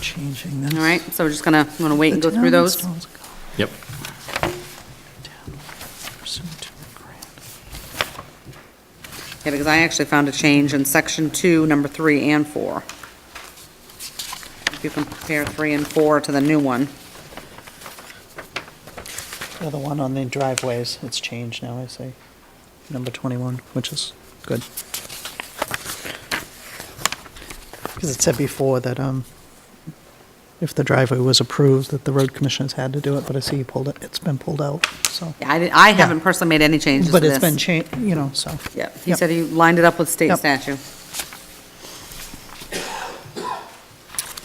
changing this. All right, so we're just gonna, wanna wait and go The through town those? installs a Yep. culvert pursuant to a grant. Yeah, because I actually found a change in section two, number three and four. If you compare three and four to the new one. Yeah, The one on the driveways, it's changed now, I see. Number 21, which is good. Because it said before that um, if the driveway was approved, that the road commissioners had to do it, but I see you pulled it, it's been pulled out, so. Yeah, I, didn't- I haven't personally made any changes to But it's this. been changed, you know, so. Yeah, he Yep. said he lined it up with state Yep. statute.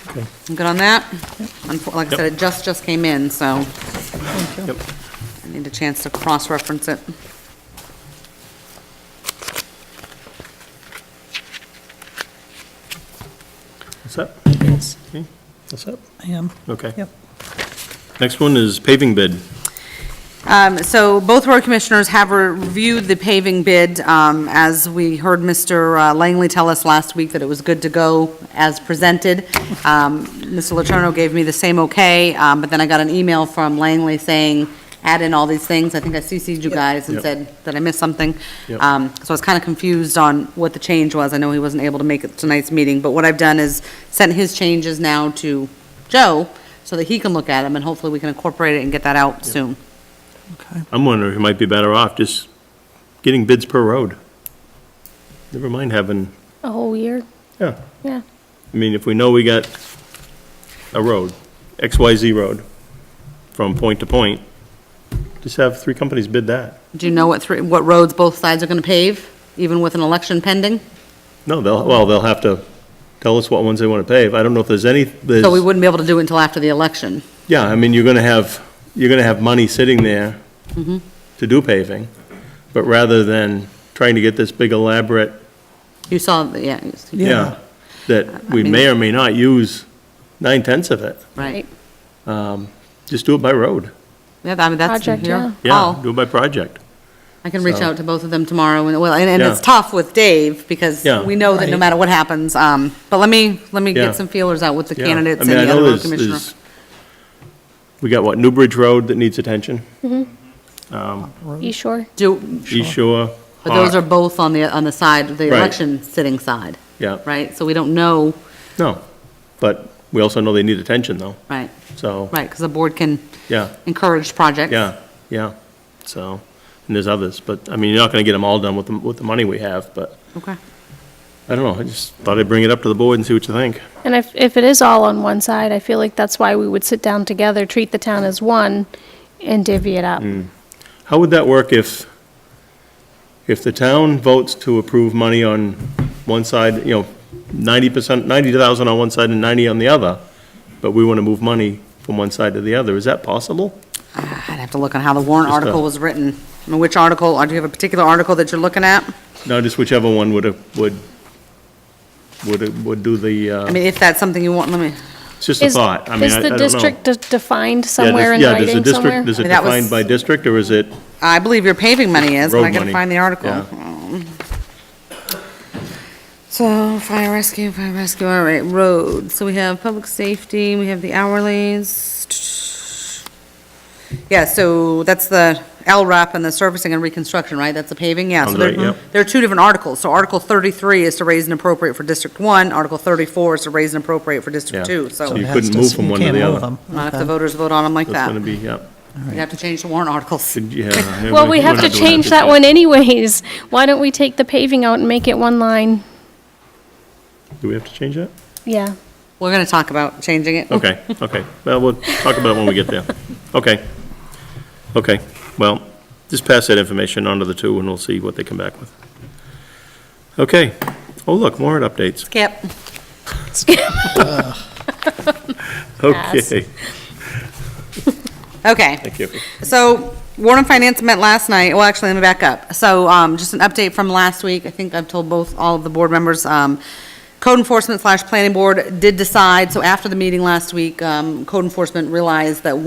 Okay. Good on that? Unfo- Like I said, it just, just came in, so Thank you. Yep. I need a chance to cross-reference it. What's up? Yes, Okay. What's up? I am, Okay. yep. Next one is paving bid. Um, So both road commissioners have reviewed the paving bid. um, As we heard Mr. Langley tell us last week that it was good to go as presented. Um, Mr. Letourneau gave me the same okay, um, but then I got an email from Langley saying, add in all these things. I think I CC'd you guys and Yep. said, did I miss something? Yep. Um, So I was kind of confused on what the change was. I know he wasn't able to make it tonight's meeting, but what I've done is sent his changes now to Joe so that he can look at them, and hopefully we can incorporate it and get that out soon. Okay. I'm wondering if we might be better off just getting bids per road. Never mind having, A whole year? yeah. Yeah. I mean, if we know we got a road, XYZ road, from point to point, just have three companies bid that. Do you know what three, what roads both sides are going to pave, even with an election pending? No, they'll, well, they'll have to tell us what ones they want to pave. I don't know if there's any, there's, So we wouldn't be able to do it until after the election. yeah, I mean, you're going to have, you're going to have money sitting there Mm-hmm. to do paving, but rather than trying to get this big elaborate, You saw, yeah, you- yeah, that we mean- may or may not use nine-tenths of it. right. Just do it by road. Yeah, I mean, that's Project, yeah. your Yeah, call. do it by project. I can reach So- out to both of them tomorrow, and, well, and and it's Yeah. tough with Dave, because Yeah. we know that no Right. matter what happens, um, but let me, let me Yeah. get some feelers out with the Yeah. candidates I and mean, I the know other road there's- commissioner. there's- We got what, New Bridge Road that needs attention? East Shore? Do, East Shore. but those are Hart. both on the, on the side, the uh, Right. election sitting side, Yeah. right? So we don't know, No, but we also know they need attention though, right, so, right, because the board can yeah, encourage projects. yeah, yeah, so, and there's others, but, I mean, you're not gonna get them all done with the, with the money we have, but, Okay. I don't know, I just thought I'd bring it up to the board and see what you think. And if, if it is all on one side, I feel like that's why we would sit down together, treat the town as one, and divvy it up. Mm, How would that work if, if the town votes to approve money on one side, you know, ninety percent, ninety thousand on one side and ninety on the other, but we want to move money from one side to the other, is that possible? I'd have to look on how the warrant Just a- article was written. I mean, Which article, or do you have a particular article that you're looking at? No, just whichever one would, would, would, would do the, I uh, mean, if that's something you want, let me, it's just a Is thought, I mean, I I Is don't know. the district de- defined Yeah, does- somewhere in yeah, does the writing district- somewhere? Does it I mean, that was- defined by district, or is it, I believe your paving money is, but I Road gotta money, find the article. yeah. Um, So, fire rescue, fire rescue, all right, roads. So we have public safety, we have the hourlies. Yeah, so that's the LRAP and the servicing and reconstruction, right? That's the paving, yeah. So Sounds there- right, yep. There are two different articles. So Article thirty-three is to raise and appropriate for District One, Article thirty-four is to raise and appropriate for District Yeah. Two, so. So You It has couldn't to- move from one to can't the move other. them. Not if Okay. the voters vote on them like that's that. gonna be, yeah. You'd have to change the warrant articles. Could- yeah, Well, we we're have not to doing change that one anyways. Why don't we take the paving out and make it one line? Do we have to change that? Yeah. We're gonna talk about changing it. Okay, okay. Well, we'll talk about it when we get there. Okay. Okay, well, just pass that information on to the two, and we'll see what they come back with. Okay. Oh, look, warrant updates. Skip. Okay, Okay. thank you. So Warren and Finance met last night, well, actually, let me back up. So um, just an update from last week, I think I've told both, all of the board members, um, code enforcement slash planning board did decide, so after the meeting last week, um, code enforcement realized that